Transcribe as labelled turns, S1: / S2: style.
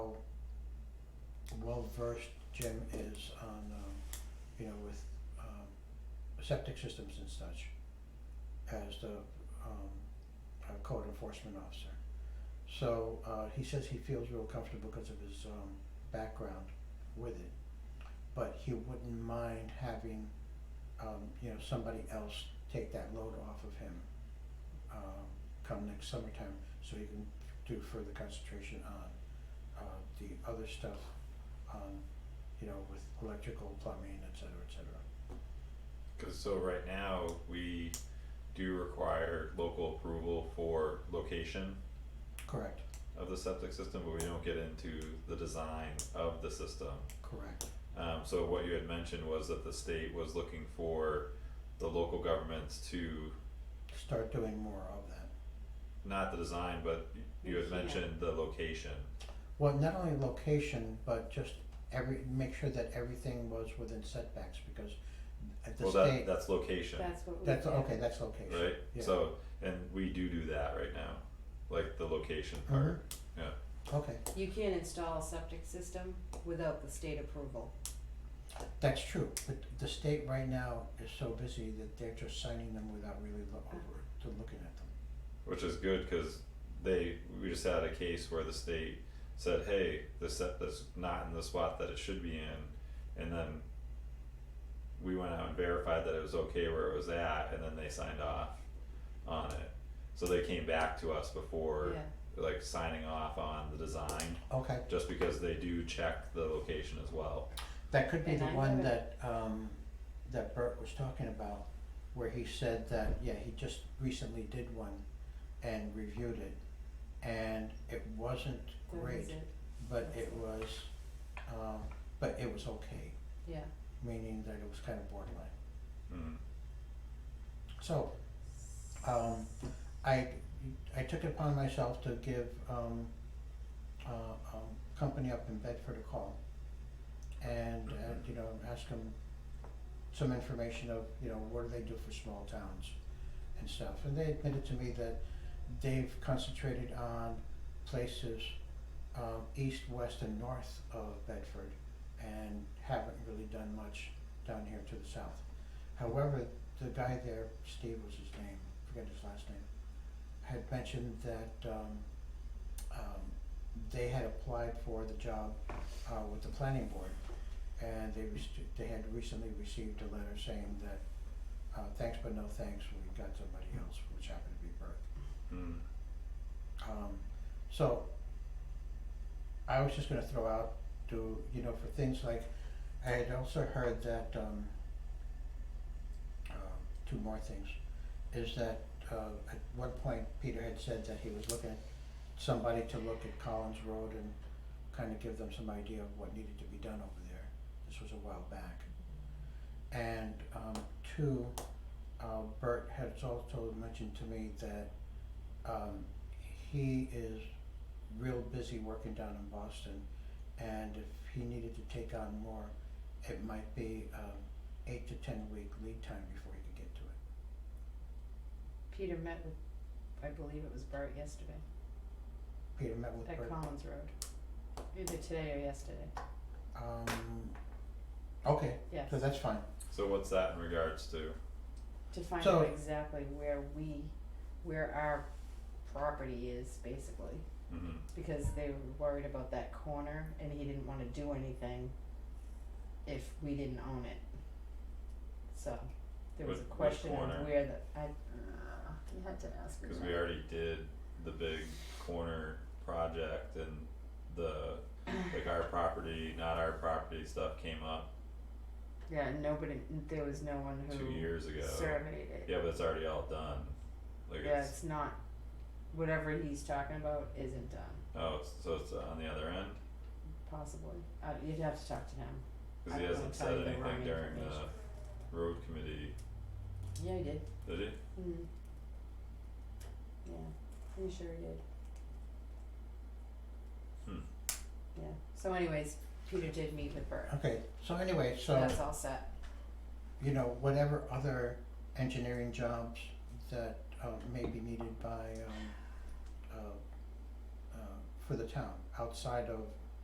S1: well versed Jim is on, um, you know, with, um, septic systems and such as the, um, uh, code enforcement officer. So, uh, he says he feels real comfortable because of his, um, background with it. But he wouldn't mind having, um, you know, somebody else take that load off of him, um, come next summertime, so he can do further concentration on uh the other stuff, um, you know, with electrical, plumbing, et cetera, et cetera.
S2: Cause so right now, we do require local approval for location
S1: Correct,
S2: of the septic system, but we don't get into the design of the system.
S1: correct,
S2: Um, so what you had mentioned was that the state was looking for the local governments to,
S1: start doing more of that.
S2: not the design, but y- you had
S3: Yeah.
S2: mentioned the location.
S1: Well, not only location, but just every, make sure that everything was within setbacks, because at the
S2: Well, that,
S1: state,
S2: that's location,
S3: That's what we.
S1: that's,
S3: did.
S1: okay, that's location.
S2: right?
S1: yeah.
S2: So, and we do do that right now, like the location
S1: Uh-huh.
S2: part, yeah.
S1: Okay,
S3: You can't install a septic system without the state approval.
S1: that's true, but the state right now is so busy that they're just signing them without really look over, to looking at them.
S2: Which is good, cause they, we just had a case where the state said, hey, this set that's not in the spot that it should be in, and then. We went out and verified that it was okay where it was at, and then they signed off on it, so they came back to us before,
S3: Yeah,
S2: like signing off on the design,
S1: Okay,
S2: just because they do check the location as well.
S1: That could be
S3: And
S1: the
S3: I
S1: one
S3: haven't-
S1: that, um, that Bert was talking about, where he said that, yeah, he just recently did one and reviewed it. And it wasn't
S3: that is
S1: great,
S3: it,
S1: but it was, um, but it was okay,
S3: yeah.
S1: meaning that it was kind of borderline.
S2: Mm.
S1: So, um, I, I took it upon myself to give, um, uh, um, company up in Bedford a call. And, uh, you know, ask them some information of, you know, what do they do for small towns and stuff. And they admitted to me that they've concentrated on places, um, east, west and north of Bedford and haven't really done much down here to the south. However, the guy there, Steve was his name, forget his last name, had mentioned that um um they had applied for the job uh with the planning board and they rec- they had recently received a letter saying that uh thanks but no thanks, we got somebody else, which happened to be Bert.
S2: Mm.
S1: Um, so, I was just gonna throw out, do, you know, for things like, I had also heard that, um, um, two more things, is that, uh, at one point, Peter had said that he was looking at somebody to look at Collins Road and kind of give them some idea of what needed to be done over there. This was a while back. And, um, two, uh, Bert had also mentioned to me that, um, he is real busy working down in Boston, and if he needed to take on more, it might be um eight to ten week lead time before he could get to it.
S3: Peter met with, I believe it was Bart yesterday,
S1: Peter met with
S3: at
S1: Bert,
S3: Collins Road. Either today or yesterday.
S1: um, okay,
S3: Yes.
S1: so that's fine,
S2: So what's that in regards to?
S3: To find
S1: So-
S3: out exactly where we, where our property is basically,
S2: Mhm.
S3: because they were worried about that corner and he didn't wanna do anything if we didn't own it. So, there was a
S2: What- what
S3: question
S2: corner?
S3: of where the, I, uh, you had to ask me
S2: Cause
S3: that.
S2: we already did the big corner project and the, like our property, not our property stuff came up
S3: Yeah, and nobody, there was no one who
S2: two years ago.
S3: surveyed it.
S2: Yeah, but it's already all done, like
S3: Yeah,
S2: it's,
S3: it's not, whatever he's talking about isn't done,
S2: oh, it's- so it's on the other end,
S3: possibly. Uh, you'd have to talk to him.
S2: cause
S3: I
S2: he
S3: don't wanna
S2: hasn't
S3: tell
S2: said
S3: you the wrong
S2: anything during the
S3: information.
S2: road committee,
S3: Yeah, he did.
S2: did he?
S3: Mm. Yeah, pretty sure he did.
S2: Hmm.
S3: Yeah, so anyways, Peter did meet with Bert,
S1: okay, so anyway, Uh, so.
S3: that's all set.
S1: you know, whatever other engineering jobs that uh may be needed by um uh uh for the town outside of